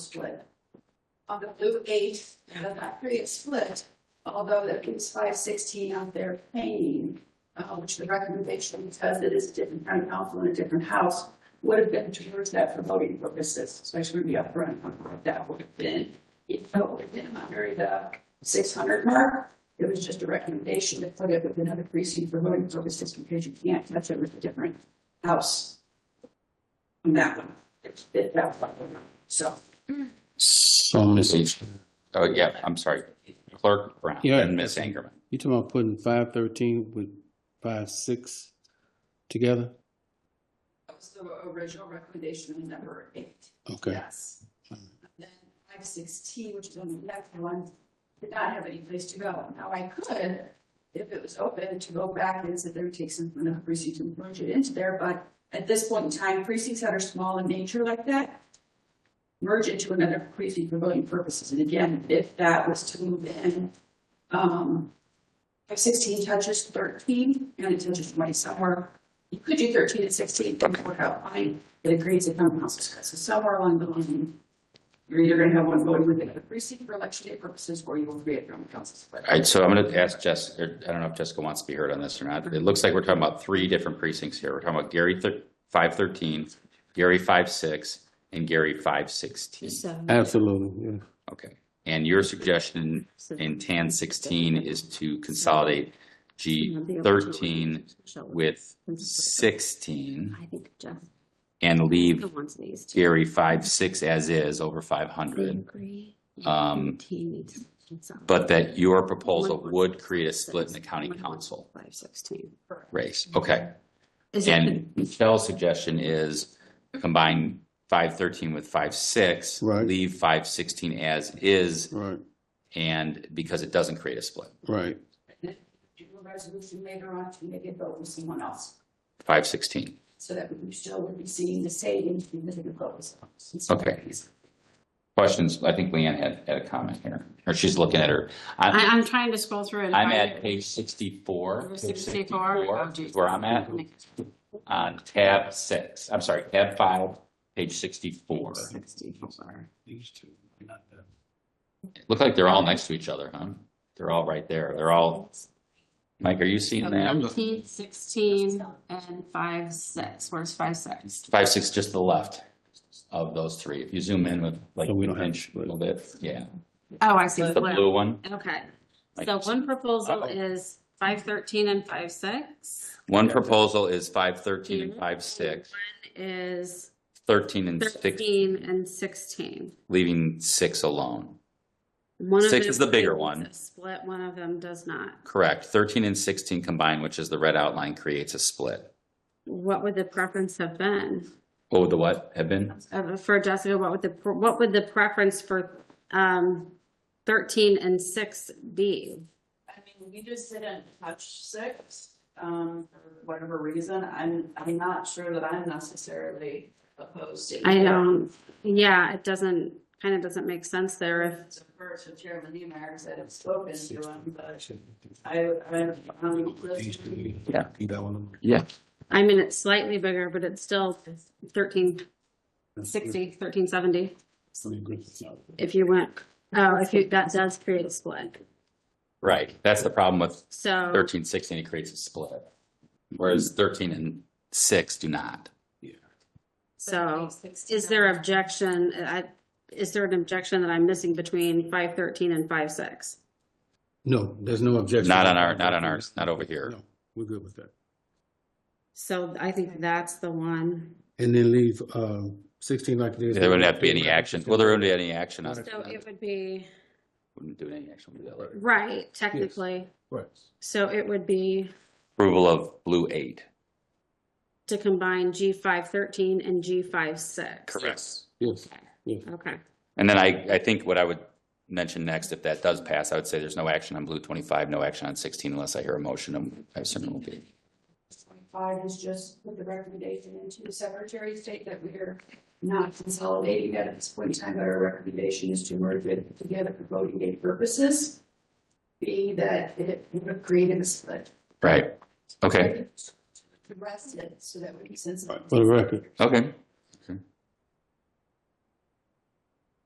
split. On the blue eight, and then that three is split, although that leaves five sixteen out there paying, uh, which the recommendation, because it is a different town council and a different house, would have been towards that for voting purposes, so I should be upfront on what that would have been. If it would have been under the six hundred mark, it was just a recommendation to put it with another precinct for voting purposes, because you can't touch it with a different house. On that one, it's, it, that one, so. So, Miss, you Oh, yeah, I'm sorry. Clerk Brown Yeah. and Miss Angerman. talking about putting five thirteen with five six together? That was the original recommendation in number eight. Okay. Yes. And Then five sixteen, which is on the left one, did not have any place to go. Now I could, if it was open, to go back and sit there, and take some from the precinct and plunge it into there, but at this point in time, precincts that are small in nature like that merge into another precinct for voting purposes. And again, if that was to move in, um, five sixteen touches thirteen and it touches twenty somewhere. You could do thirteen and sixteen, but it would outline it agrees if town council says, so somewhere along the line, you're either gonna have one voting within the precinct for election day purposes, or you will create your own council split. All right, so I'm going to ask Jess, or I don't know if Jessica wants to be heard on this or not. It looks like we're talking about three different precincts here. We're talking about Gary thir- 513, Gary 56, and Gary 516. Absolutely, yeah. Okay. And your suggestion in TAN 16 is to consolidate G 13 with 16 I think Jeff and leave wants these two. Gary 56 as is over They 500. agree. Um, He needs some. But that your proposal One- would create a split in the county One- council Five sixteen. race. Okay. Is it- And Michelle's suggestion is combine five thirteen with five six, Right. leave five sixteen as is, Right, and because it doesn't create a split. right. Do a resolution later on to maybe vote with someone else, Five sixteen. so that we still would be seeing the same significant votes. Okay. Questions? I think Leanne had, had a comment here, or she's looking at her. I, I'm, I'm trying to scroll through it. I'm at page sixty-four. Over page 64. Oh, geez. is Where I'm at on tab six, I'm sorry, tab five, page sixty-four. Sixty-four. These two, not them. Look like they're all next to each other, huh? They're all right there. They're all, Mike, are you seeing that? Fifteen, sixteen, and five, six. Where's five, six? five, six, just to the left of those three. If you zoom in with like So we don't an have inch a split. little bit, yeah. Oh, I see. The blue one, Okay, Like- so one proposal Uh-oh. is five thirteen and five six. one proposal is five thirteen and five six, One is thirteen and six, thirteen and sixteen. leaving six alone. One of Six is them the bigger is one. a Split, one of them does not. Correct. Thirteen and sixteen combined, which is the red outline, creates a split. What would the preference have been? What would the what have been? Uh, for Jessica, what would the, what would the preference for, um, thirteen and six be? I mean, we just didn't touch six, um, for whatever reason. I'm, I'm not sure that I'm necessarily opposed to. I either. don't, yeah, it doesn't, kind of doesn't make sense there if, It's a first with Chairman Neemeyer, because I haven't spoken to him, but I, I'm, um, listening. Yeah. That one. Yeah. I mean, it's slightly bigger, but it's still thirteen sixty, thirteen seventy, if you went, oh, if you, that does create a split, Right. That's the problem with so. thirteen, sixteen, it creates a split. Whereas thirteen and six do not. So, is there objection, I, is there an objection that I'm missing between five thirteen and five six? No, there's no objection. Not on our- not on ours, not over here. No, We're good with that. So I think that's the one. And then leave, um, sixteen like it is. There wouldn't have to be any action. Well, there wouldn't be any action on it. So it would be, Wouldn't do any action. We'll do that later. right, technically. Right. So it would be Approval of blue eight. to combine G five thirteen and G five six. Correct. Yes, Okay, And then I, I think what I would mention next, if that does pass, I would say there's no action on blue twenty-five, no action on sixteen unless I hear a motion. um, I assume it will be. Twenty-five is just put the recommendation into the Secretary of State that we're not consolidating that at this point in time, but our recommendation is to merge it together for voting day purposes. Being that it would have created a split. Right. Okay, To Address it so that we can sense. for the record. okay.